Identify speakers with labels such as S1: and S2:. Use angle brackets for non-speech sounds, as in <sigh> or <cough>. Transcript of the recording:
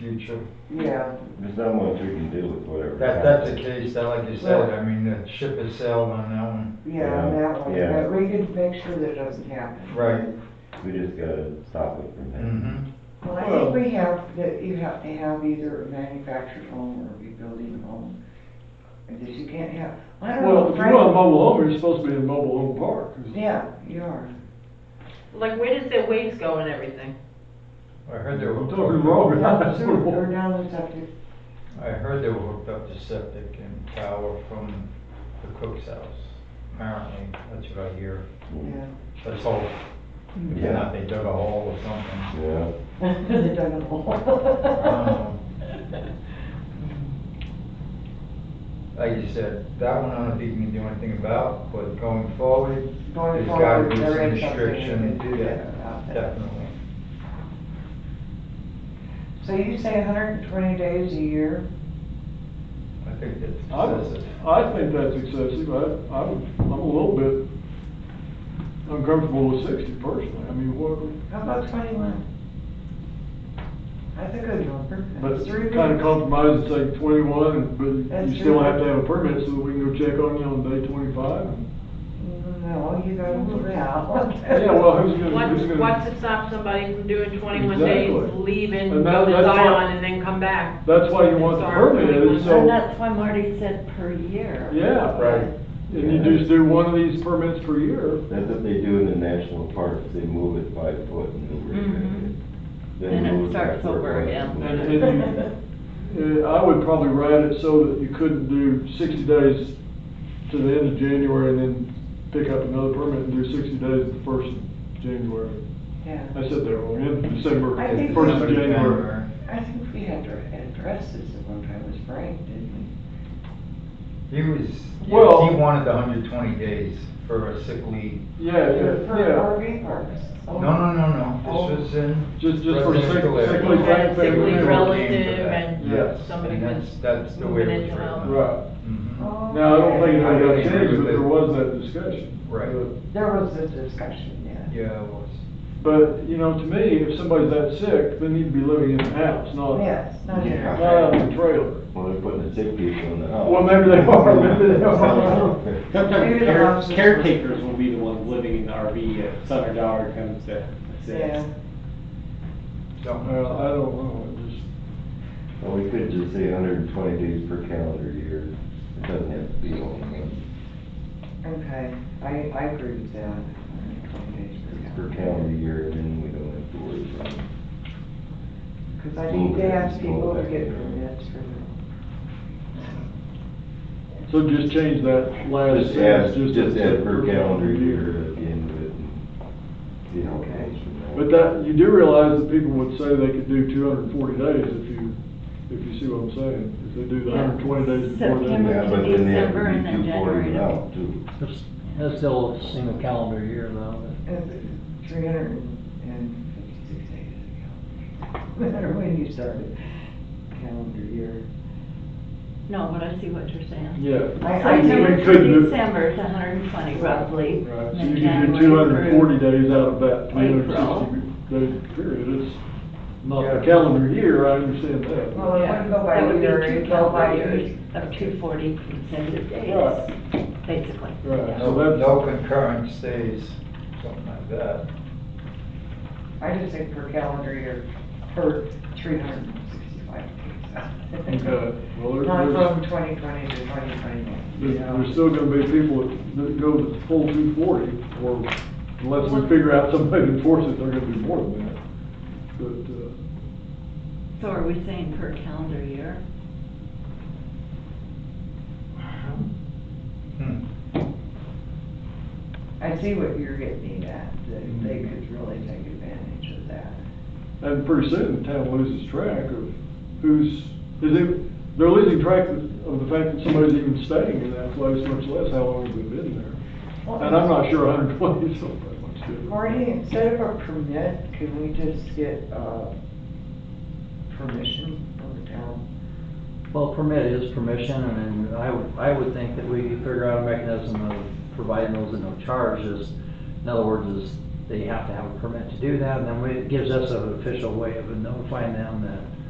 S1: future.
S2: Yeah,
S3: There's not much we can do with whatever.
S1: That, that's the case, that like you said, I mean, the ship has sailed on that one.
S2: yeah, on that one,
S3: Yeah.
S2: but we can make sure that doesn't happen.
S1: Right.
S3: We just gotta stop it from happening.
S1: Mm-hmm.
S2: Well, I think we have, that you have to have either a manufactured home or a rebuilding home. And this you can't have, I don't
S4: Well,
S2: know,
S4: if you're on a
S2: Frank.
S4: mobile home, you're supposed to be in a mobile home park.
S2: Yeah, you are.
S5: Like, where does their waves go and everything?
S1: I heard they were
S4: Don't
S1: hooked
S4: be wrong.
S1: up,
S2: Down the sewer or down the septic,
S1: I heard they were hooked up to septic and power from the cook's house. Apparently, that's what I hear.
S2: <laughs> yeah.
S1: Let's hope. If
S3: Yeah.
S1: not, they dug a hole or something.
S4: Mm-hmm.
S3: Yeah,
S2: They dug a hole.
S1: Um, Like you said, that one I don't think we can do anything about, but going forward,
S2: <laughs> Going
S1: there's gotta
S2: forward,
S1: be some
S2: there is something we
S1: restriction
S2: can
S1: to do
S2: about
S1: that,
S2: that.
S1: definitely.
S2: So you say hundred and twenty days a year?
S1: I think that's
S4: I,
S1: excessive.
S4: I think that's excessive, I, I would, I'm a little bit uncomfortable with sixty personally, I mean, what,
S2: How about twenty-one? That's a good number.
S4: but
S2: That's three
S4: kind of
S2: weeks.
S4: compromise, it's like twenty-one, but
S2: That's
S4: you still
S2: true.
S4: have to have a permit so that we can go check on you on day
S2: <laughs>
S4: twenty-five.
S2: No, you gotta move out.
S4: <laughs> Yeah, well, who's
S5: What,
S4: gonna, who's gonna?
S5: what to stop somebody from doing twenty-one days,
S4: Exactly.
S5: leaving,
S4: And
S5: go
S4: that-
S5: to
S4: that's why-
S5: Zion, and then come back?
S4: That's why you want the
S5: Sorry.
S4: permit, is
S6: And
S4: so,
S6: that's why Marty said per year.
S4: yeah.
S1: Right.
S4: And you just do one of these permits per year,
S3: that's what they do in the national parks, they move it five foot and then we're
S6: Mhm.
S3: Then
S6: Then it
S3: move back
S6: starts
S3: where
S6: over
S3: was.
S6: again.
S4: and, and you, Uh, I would probably write it so that you couldn't do sixty days to the end of January and then pick up another permit and do sixty days the first of January.
S2: Yeah.
S4: I said that wrong, end of December,
S2: I think
S4: first
S2: so.
S4: of January.
S2: I think we had to address this at one time, it was Frank, didn't
S1: He was, he
S4: Well-
S1: wanted the hundred twenty days for a sick leave.
S4: Yeah,
S2: we?
S4: yeah,
S2: For
S4: yeah,
S2: RV parks.
S1: No, no, no, no,
S2: Oh.
S1: this was in.
S4: Oh. Just- just for sick-
S1: residential area.
S4: sick leave,
S1: He was
S4: right, family
S1: in the
S5: Sickly
S4: member.
S5: relative
S1: game for that.
S5: and
S4: Yes.
S5: somebody
S1: And that's,
S5: was
S1: that's the way
S5: moving
S1: it was
S5: into
S1: written.
S5: house.
S4: right.
S1: Mhm.
S2: Oh,
S4: Now, I don't think it got
S1: Okay.
S4: changed, but there was that discussion.
S1: Right.
S4: But-
S2: There was a discussion, yeah.
S1: Mm-hmm. Yeah, it was.
S4: But, you know, to me, if somebody's that sick, they need to be living in the house, not,
S2: Yes, not in
S4: not out
S2: our.
S4: in the trailer.
S3: Well, they're putting the sick people in the house.
S4: Well, maybe they are, maybe they are.
S2: Maybe
S7: Sometimes
S2: the
S7: care-
S2: officers-
S7: caretakers will be the ones living in the RV if son or daughter comes to
S2: Yeah.
S7: assist.
S1: Don't know.
S4: Well, I don't know, it just.
S3: <laughs> Well, we could just say hundred and twenty days per calendar year, it doesn't have to be only
S2: Okay, I, I agree with that. 120 days
S3: per calendar year, and then we don't have to worry about it.
S2: Because I need to ask people to get permits for them.
S4: So just change that last
S3: Just add,
S4: sentence.
S3: just
S4: to-
S3: add per calendar year at the end of it. and See how it goes from there.
S4: But that, you do realize that people would say they could do two hundred and forty days if you, if you see what I'm saying, if they do the hundred and twenty days before
S6: September.
S4: that.
S3: Yeah, but then they have
S6: December
S3: to
S6: and
S3: be
S6: then
S3: two forty
S6: January.
S3: out too.
S8: That's- That's still a single calendar year though.
S2: Uh, And 356 days ago. No matter when you started, calendar year.
S6: No, but I see what you're saying.
S4: Yeah,
S2: I- I do-
S6: September
S4: We could
S6: to
S4: do-
S6: December is hundred and twenty roughly.
S4: right, so
S6: then
S4: you can do
S6: January
S4: two hundred and forty
S6: through-
S4: days out of that three hundred
S6: April.
S4: and sixty day period, it's not
S1: Yeah.
S4: a calendar year, I understand that.
S2: Well, it wouldn't go
S6: That
S2: by
S6: would be
S2: year,
S6: two
S2: it'd go by
S6: calendar
S2: years.
S6: Of two forty consecutive days,
S4: Right,
S6: basically.
S4: Right.
S6: Yeah.
S4: So
S1: No,
S4: that's-
S1: no concurrent stays, something like that.
S2: I just think per calendar year, per three hundred and sixty-five days.
S4: okay, well, there-
S2: Not
S4: there's,
S2: from twenty twenty to twenty twenty-one.
S4: there's, there's still gonna be people that- that go the full two forty, or unless we figure out some way to enforce it, they're gonna be more than that. But, uh,
S6: So are we saying per calendar year?
S4: uh,
S1: Hmm.
S2: I see what you're getting at, that they could really take advantage of that.
S4: And pretty soon, the town loses track of who's, is it, they're losing track of of the fact that somebody's even staying in that place, much less how long they've been there. And I'm not sure hundred and twenty is all that much different.
S2: Marty, instead of a permit, can we just get, uh, permission from the town?
S8: Well, permit is permission, and I would, I would think that we figure out a mechanism of providing those at no charge is, in other words, is they have to have a permit to do that, and then we- it gives us an official way of notifying them that